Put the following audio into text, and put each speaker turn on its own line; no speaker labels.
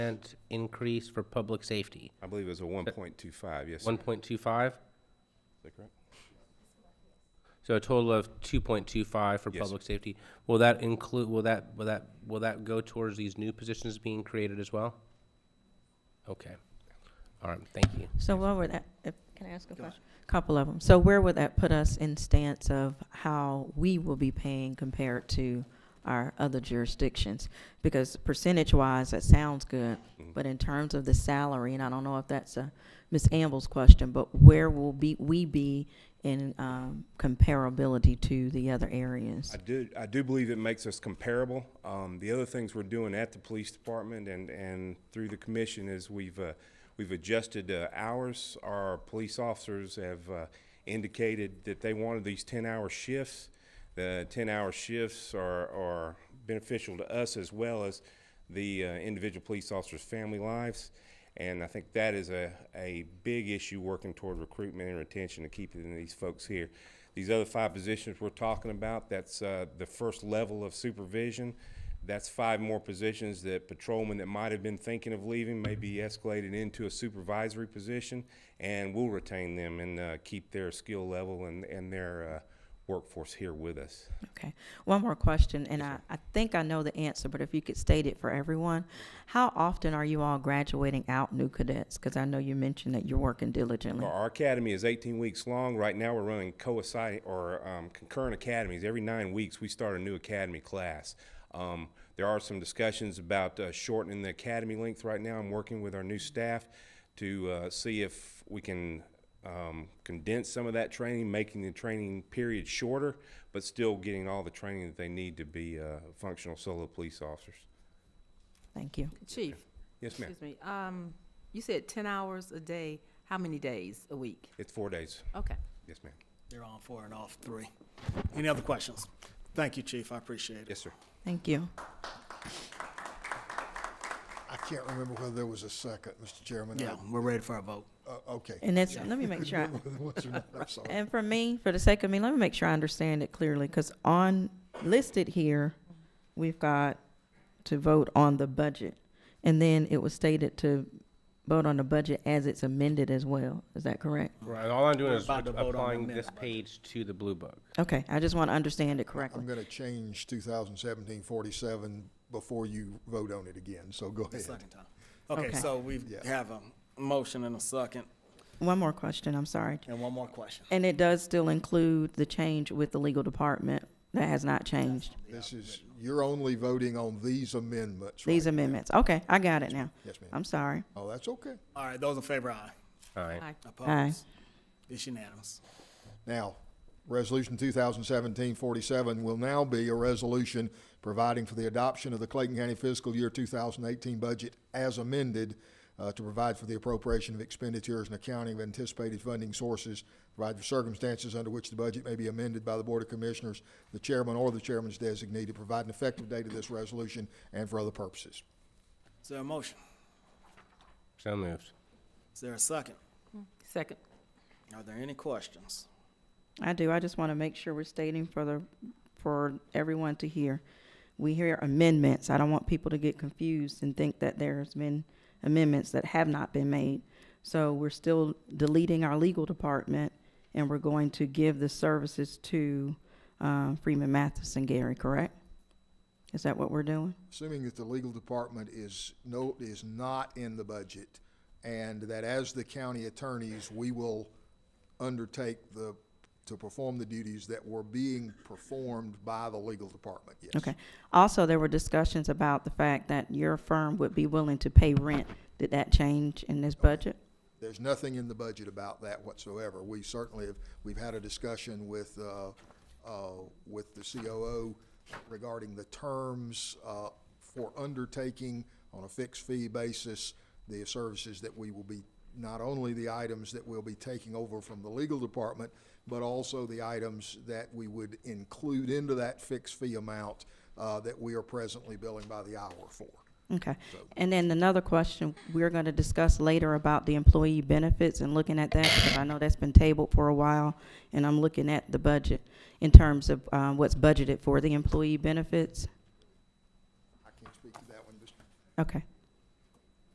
percent increase for public safety,
I believe it was a one point two five, yes, sir.
one
Is
point two five.
that correct?
So a total of two point two five for
Yes, sir.
public safety. Will that include, will that, will that, will that go towards these new positions being created as well? Okay. All right, thank you.
So what would that, if, can I ask a question? Couple of them. So where would that put us in stance of how we will be paying compared to our other jurisdictions? Because percentage-wise, that sounds good, but in terms of the salary, and I don't know if that's a Ms. Amble's question, but where will be, we be in, um, comparability to the other areas?
I do, I do believe it makes us comparable. Um, the other things we're doing at the police department and, and through the commission is we've, uh, we've adjusted, uh, hours. Our police officers have, uh, indicated that they wanted these ten-hour shifts. The ten-hour shifts are, are beneficial to us as well as the, uh, individual police officers' family lives. And I think that is a, a big issue working toward recruitment and retention and keeping these folks here. These other five positions we're talking about, that's uh, the first level of supervision. That's five more positions that patrolmen that might have been thinking of leaving may be escalated into a supervisory position, and we'll retain them and uh, keep their skill level and, and their uh, workforce here with us.
Okay. One more question, and I, I think I know the answer, but if you could state it for everyone. How often are you all graduating out new cadets? Because I know you mentioned that you're working diligently.
Our academy is 18 weeks long. Right now, we're running coinciding or um, concurrent academies. Every nine weeks, we start a new academy class. Um, there are some discussions about uh, shortening the academy length right now. I'm working with our new staff to uh, see if we can um, condense some of that training, making the training period shorter, but still getting all the training that they need to be uh, functional solo police officers.
Thank you.
Chief,
Yes, ma'am.
excuse me, um, you said ten hours a day, how many days a week?
It's four days.
Okay.
Yes, ma'am.
They're on four and off three. Any other questions? Thank you, Chief. I appreciate it.
Yes, sir.
Thank you.
I can't remember whether there was a second, Mr. Chairman.
Yeah, we're ready for a vote.
Uh, Okay.
And that's, let me make sure, I-
What's your number? I'm sorry.
and for me, for the sake of me, let me make sure I understand it clearly, because on, listed here, we've got to vote on the budget. And then it was stated to vote on the budget as it's amended as well. Is that correct?
Right, all I'm doing
We're
is
about to vote on the
applying
amendment
this
budget.
page to the blue book.
Okay, I just want to understand it correctly.
I'm going to change 2017-47 before you vote on it again, so go
The
ahead.
second time. Okay,
Okay.
so we
Yeah.
have a motion and a second,
One more question, I'm sorry.
and one more question.
And it does still include the change with the legal department that has not changed,
This is, you're only voting on these amendments, right?
these amendments. Okay, I got it now.
Yes, ma'am.
I'm sorry.
Oh, that's okay.
All right, those in favor, aye.
All right.
Aye.
Opposed? It's unanimous.
Now, Resolution 2017-47 will now be a resolution providing for the adoption of the Clayton County Fiscal Year 2018 budget as amended uh, to provide for the appropriation of expenditures and accounting of anticipated funding sources, provide for circumstances under which the budget may be amended by the Board of Commissioners, the chairman or the chairman's designee to provide an effective date of this resolution and for other purposes.
Is there a motion?
So moved.
Is there a second?
Second.
Are there any questions?
I do, I just want to make sure we're stating for the, for everyone to hear. We hear amendments. I don't want people to get confused and think that there's been amendments that have not been made. So we're still deleting our legal department and we're going to give the services to, uh, Freeman Matheson Gary, correct? Is that what we're doing?
assuming that the legal department is no, is not in the budget, and that as the county attorneys, we will undertake the, to perform the duties that were being performed by the legal department, yes.
Okay. Also, there were discussions about the fact that your firm would be willing to pay rent. Did that change in this budget?
There's nothing in the budget about that whatsoever. We certainly have, we've had a discussion with, uh, uh, with the COO regarding the terms, uh, for undertaking on a fixed fee basis, the services that we will be, not only the items that we'll be taking over from the legal department, but also the items that we would include into that fixed fee amount, uh, that we are presently billing by the hour for.
Okay. And then another question, we're going to discuss later about the employee benefits and looking at that, because I know that's been tabled for a while, and I'm looking at the budget in terms of uh, what's budgeted for the employee benefits.
I can't speak to that one, Mr.
Okay.